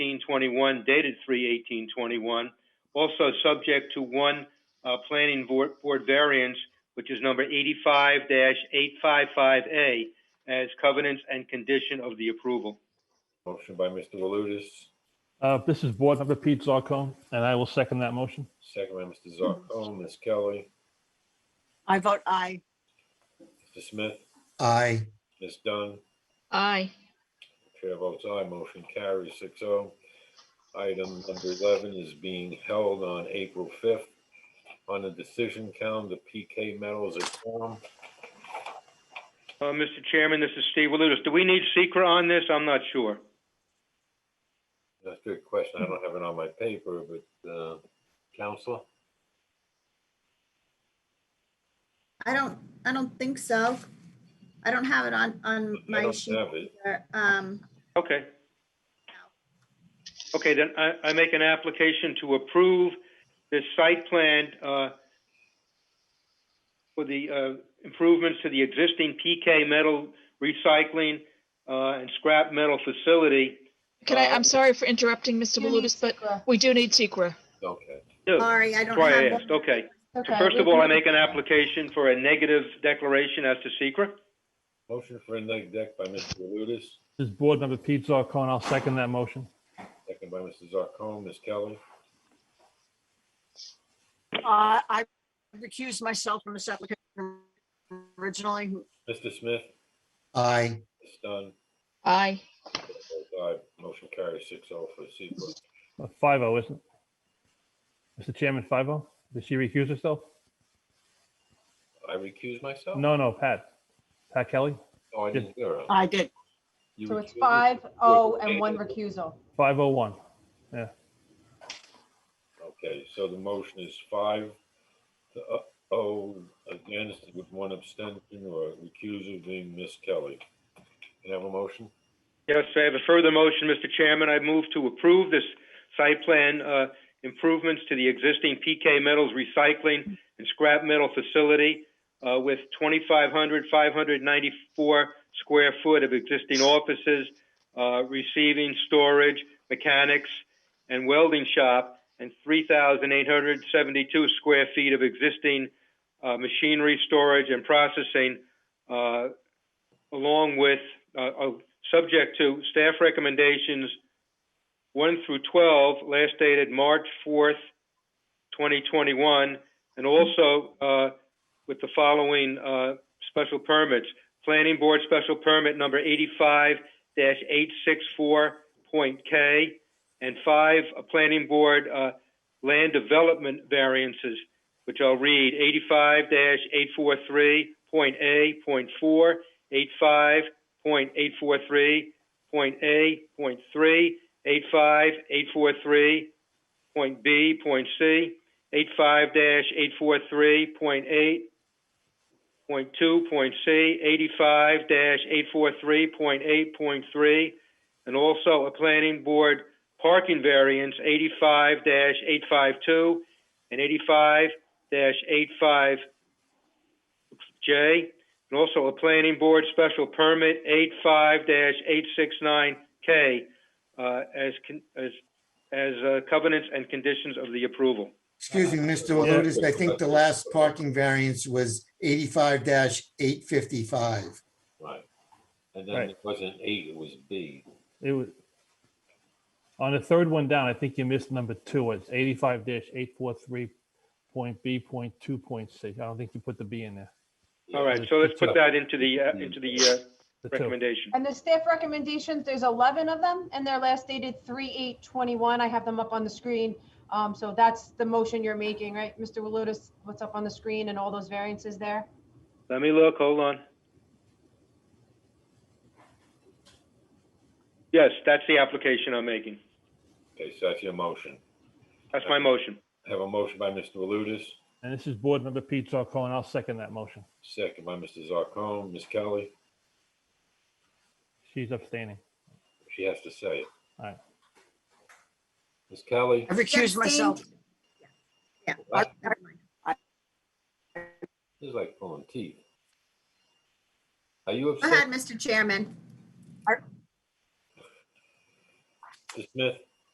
1821, dated 3/1821, also subject to one uh, planning board board variance, which is number 85-855A, as covenants and condition of the approval. Motion by Mr. Walutis, Uh, This is Board Member Pete Zarcone, and I will second that motion. second by Mr. Zarcone, Ms. Kelly, I vote aye. Mr. Smith, aye, Ms. Dunn. aye, Chair votes aye, motion carries 6-0. Item number eleven is being held on April fifth on the decision calendar, PK Metals at Quorum. Uh, Mr. Chairman, this is Steve Walutis. Do we need secra on this? I'm not sure. That's a good question. I don't have it on my paper, but, uh, Counselor? I don't, I don't think so. I don't have it on, on I my don't sheet. have it. either. Um, Okay. Okay, then I, I make an application to approve this site plan uh, for the uh, improvements to the existing PK metal recycling uh, and scrap metal facility. can I, Uh, I'm sorry for interrupting, Mr. you need Walutis, but Secra. we do need secra. Okay, No, Sorry, I don't That's why I have. asked, one. okay. So Okay, First of we all, I can- make an application for a negative declaration as to secra. motion for a neg deck by Mr. Walutis, This is Board Member Pete Zarcone, I'll second that motion. second by Mr. Zarcone, Ms. Kelly, Uh, I recused myself from this application originally. Mr. Smith, aye. Ms. Dunn. Aye, votes Aye, motion carries 6-0 for Secra. Five oh, isn't it? Mr. Chairman, five oh? Did she recuse herself? I recuse myself? No, no, Pat. Pat Kelly, Oh, I didn't hear it. I did. You Uh, So it's recused? five, oh, and one Okay. recusal. five oh one. Okay, so the motion is five to, uh, oh, against with one abstention or recusal being Miss Kelly. Can I have a motion? Yes, I have a further motion, Mr. Chairman. I move to approve this site plan uh, improvements to the existing PK Metals Recycling and Scrap Metal Facility uh, with 2,500, 594 square foot of existing offices, uh, receiving, storage, mechanics, and welding shop, and 3,872 square feet of existing uh, machinery, storage, and processing, uh, along with, uh, uh, subject to staff recommendations 1 through 12, last dated March 4th, 2021, and also uh, with the following uh, special permits. Planning Board Special Permit Number 85-864.K, and five uh, Planning Board uh, Land Development Variances, which I'll read, 85-843.A.4, 85 point eight four three point A point three eight five eight four three point B point C eight five dash eight four three point eight point two point C eighty five dash eight four three point eight point three and also a planning board parking variance eighty five dash eight five two and eighty five dash eight five J and also a planning board special permit 85-869K uh, as, con- as, as uh, covenants and conditions of the approval. Excuse me, Mr. Walutis, I think the last parking variance was eighty-five eight fifty-five. Right. And then Right. it wasn't eight, it was B. It was. On the third one down, I think you missed number two. It's eighty-five dash eight four three point B point two point six. I don't think you put the B in there. All right, so let's put that into the, uh, into the uh, The two. recommendation. And the staff recommendations, there's 11 of them, and they're last dated 3/8/21. I have them up on the screen. Um, So that's the motion you're making, right, Mr. Walutis? What's up on the screen and all those variances there? Let me look, hold on. Yes, that's the application I'm making. Okay, so that's your motion. That's my motion. Have a motion by Mr. Walutis, And this is Board Member Pete Zarcone, I'll second that motion. second by Mr. Zarcone, Ms. Kelly, She's abstaining. she has to say it. All right. Ms. Kelly, I recused myself. Yeah. Wow. never mind. this is like pulling teeth. Are you Go ahead, upset, Mr. Chairman. Mr. Smith?